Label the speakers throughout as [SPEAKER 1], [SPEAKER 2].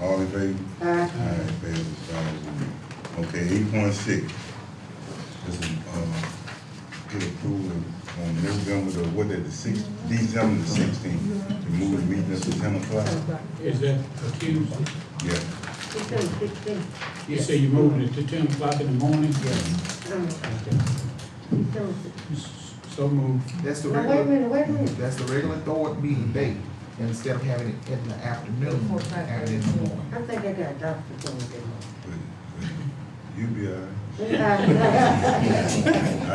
[SPEAKER 1] all in favor?
[SPEAKER 2] Aye.
[SPEAKER 1] All right, passes five zero. Okay, eight point six. This is, uh, get approval on November the, what, the sixth, December the seenth to move the meeting up to ten o'clock?
[SPEAKER 3] Is that accused?
[SPEAKER 1] Yeah.
[SPEAKER 2] It's on sixteen.
[SPEAKER 3] You say you're moving it to ten o'clock in the morning? Yes.
[SPEAKER 2] Um, it's on six-
[SPEAKER 3] So moved.
[SPEAKER 4] That's the
[SPEAKER 2] Now, wait a
[SPEAKER 4] regular,
[SPEAKER 2] minute, wait a minute.
[SPEAKER 4] that's the regular board meeting date, instead of having it in the afternoon, have it in the morning.
[SPEAKER 2] I think I got a doctor appointment.
[SPEAKER 1] but- but You be all right.
[SPEAKER 2] Well,
[SPEAKER 1] I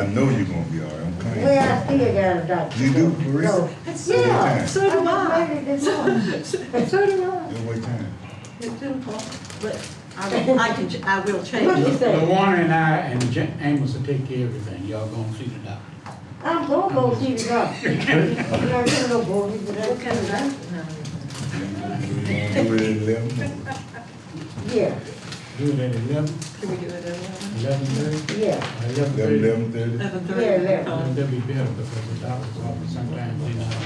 [SPEAKER 1] know you're gonna be all right, I'm coming.
[SPEAKER 2] I still got a doctor.
[SPEAKER 1] You do,
[SPEAKER 2] appointment.
[SPEAKER 1] Marissa?
[SPEAKER 2] So- Yeah.
[SPEAKER 5] So do I.
[SPEAKER 2] I'm ready this morning. So do I.
[SPEAKER 1] Just wait time.
[SPEAKER 2] It's ten o'clock.
[SPEAKER 5] But I, I can, ch- I will change it.
[SPEAKER 2] Yes, sir.
[SPEAKER 3] LaWarner and I and Ja- Amos will take care of everything. Y'all gonna see the doctor.
[SPEAKER 2] I'm gonna go see the doctor. You know, I can't go boy, but I-
[SPEAKER 5] What kind of doctor?
[SPEAKER 1] Do it at eleven.
[SPEAKER 2] Yeah,
[SPEAKER 3] Do it at eleven,
[SPEAKER 5] Can we do it at eleven?
[SPEAKER 3] eleven thirty,
[SPEAKER 2] yeah.
[SPEAKER 3] eleven
[SPEAKER 1] Eleven,
[SPEAKER 3] thirty?
[SPEAKER 1] eleven thirty?
[SPEAKER 2] Yeah,
[SPEAKER 5] Eleven thirty,
[SPEAKER 2] yeah.
[SPEAKER 5] uh,
[SPEAKER 3] That'd be better because the doctor's office sometimes they not on time.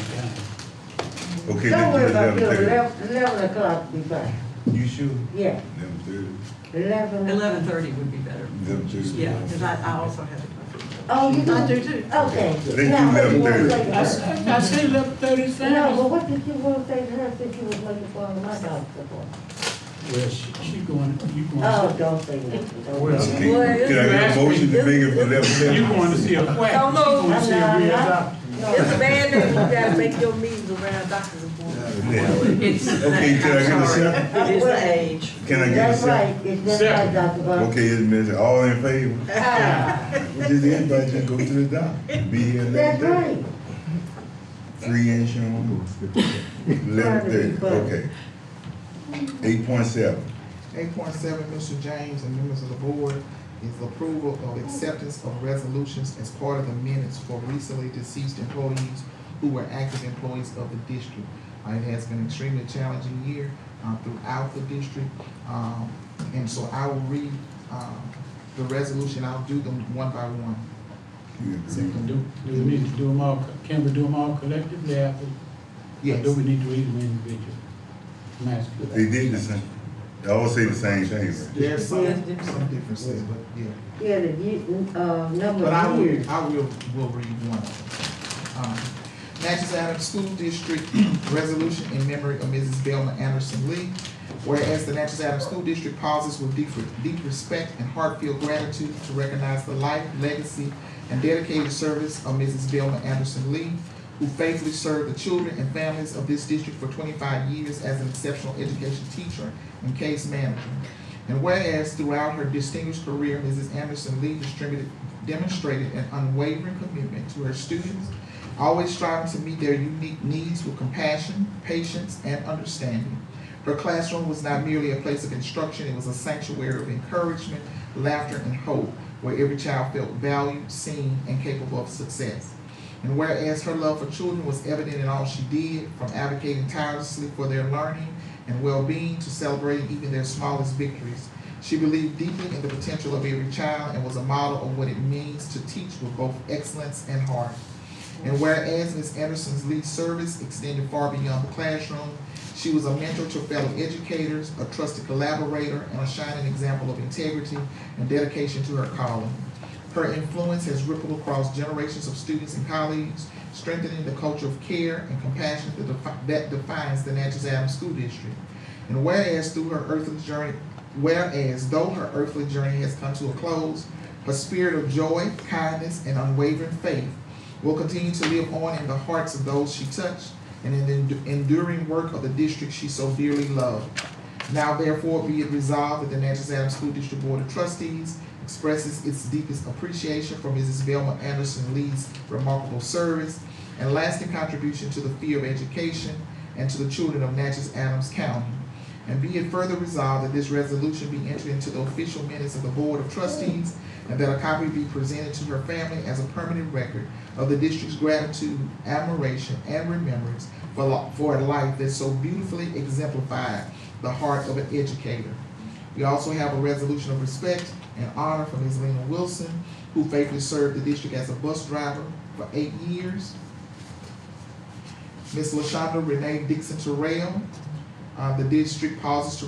[SPEAKER 1] Okay, let's do
[SPEAKER 2] Don't worry
[SPEAKER 1] it
[SPEAKER 2] about
[SPEAKER 1] eleven
[SPEAKER 2] till
[SPEAKER 1] thirty.
[SPEAKER 2] eleven, eleven o'clock be fine.
[SPEAKER 1] You sure?
[SPEAKER 2] Yeah,
[SPEAKER 1] Eleven thirty?
[SPEAKER 2] eleven.
[SPEAKER 5] eleven thirty would be better.
[SPEAKER 1] Eleven thirty?
[SPEAKER 5] Yeah, because I, I also have to.
[SPEAKER 2] Oh, you do?
[SPEAKER 5] I do too.
[SPEAKER 2] Okay.
[SPEAKER 1] They do
[SPEAKER 2] Now, what you wanna
[SPEAKER 1] 11:30.
[SPEAKER 2] say to
[SPEAKER 3] I
[SPEAKER 2] her?
[SPEAKER 3] said, I said eleven thirty
[SPEAKER 2] No,
[SPEAKER 3] sounds.
[SPEAKER 2] but what did you want to say to her since you was looking for my doctor for?
[SPEAKER 3] Well, she, she going, you
[SPEAKER 2] Oh,
[SPEAKER 3] going,
[SPEAKER 2] don't say nothing, don't.
[SPEAKER 4] Well,
[SPEAKER 1] Okay, Can I get a motion to make it for eleven
[SPEAKER 3] to- you
[SPEAKER 1] thirty?
[SPEAKER 3] going to see a quack. You going to see a real doctor.
[SPEAKER 6] It's a bad name, you gotta make your meetings around doctor's appointments.
[SPEAKER 5] It's, I'm
[SPEAKER 1] Okay, can I get a
[SPEAKER 5] sorry,
[SPEAKER 1] second?
[SPEAKER 5] it is the age.
[SPEAKER 1] Can I get a
[SPEAKER 2] That's
[SPEAKER 1] second?
[SPEAKER 2] right, it's just like Dr. Bob.
[SPEAKER 1] Okay, it's Miss, all in favor?
[SPEAKER 3] Ah.
[SPEAKER 1] Just anybody just go to the doctor, be here
[SPEAKER 2] That's
[SPEAKER 1] eleven thirty.
[SPEAKER 2] right.
[SPEAKER 1] Free insurance. Eleven thirty, okay. Eight point seven.
[SPEAKER 4] Eight point seven, Mr. James and members of the board, is approval of acceptance of resolutions as part of the minutes for recently deceased employees who were active employees of the district. Uh, It has been extremely challenging year uh, throughout the district, um, and so I will read uh, the resolution, I'll do them one by one.
[SPEAKER 1] You agree?
[SPEAKER 3] Do, do we need to do them all, can we do them all collectively after? Or
[SPEAKER 4] Yes,
[SPEAKER 3] do we need to read them individually? I'm asking.
[SPEAKER 1] They did the same, they all say the same thing, right?
[SPEAKER 4] there's some, some differences, but yeah.
[SPEAKER 2] Yeah, the, ye- uh, number
[SPEAKER 4] But I
[SPEAKER 2] of years.
[SPEAKER 4] will, I will, will read one of them. Um, Natchez Adams School District Resolution in memory of Mrs. Belma Anderson Lee. Whereas the Natchez Adams School District pauses with deep, deep respect and heartfelt gratitude to recognize the life, legacy, and dedicated service of Mrs. Belma Anderson Lee, who faithfully served the children and families of this district for twenty-five years as an exceptional education teacher and case manager. And whereas throughout her distinguished career, Mrs. Anderson Lee distributed, demonstrated an unwavering commitment to her students, always striving to meet their unique needs with compassion, patience, and understanding. Her classroom was not merely a place of instruction, it was a sanctuary of encouragement, laughter, and hope, where every child felt valued, seen, and capable of success. And whereas her love for children was evident in all she did, from advocating tirelessly for their learning and well-being to celebrating even their smallest victories. She believed deeply in the potential of every child and was a model of what it means to teach with both excellence and heart. And whereas Ms. Anderson's lead service extended far beyond the classroom, she was a mentor to fellow educators, a trusted collaborator, and a shining example of integrity and dedication to her calling. Her influence has rippled across generations of students and colleagues, strengthening the culture of care and compassion that, defi- that defines the Natchez Adams School District. And whereas through her earthly journey, whereas though her earthly journey has come to a close, her spirit of joy, kindness, and unwavering faith will continue to live on in the hearts of those she touched and in the endu- enduring work of the district she so dearly loved. Now therefore be it resolved that the Natchez Adams School District Board of Trustees expresses its deepest appreciation for Mrs. Velma Anderson Lee's remarkable service and lasting contribution to the field of education and to the children of Natchez Adams County. And be it further resolved that this resolution be entered into the official minutes of the Board of Trustees and that a copy be presented to her family as a permanent record of the district's gratitude, admiration, and remembrance for, lo- for a life that so beautifully exemplified the heart of an educator. We also have a resolution of respect and honor for Ms. Lena Wilson, who faithfully served the district as a bus driver for eight years. Ms. LaShonda Renee Dixon Terrell, uh, the district pauses to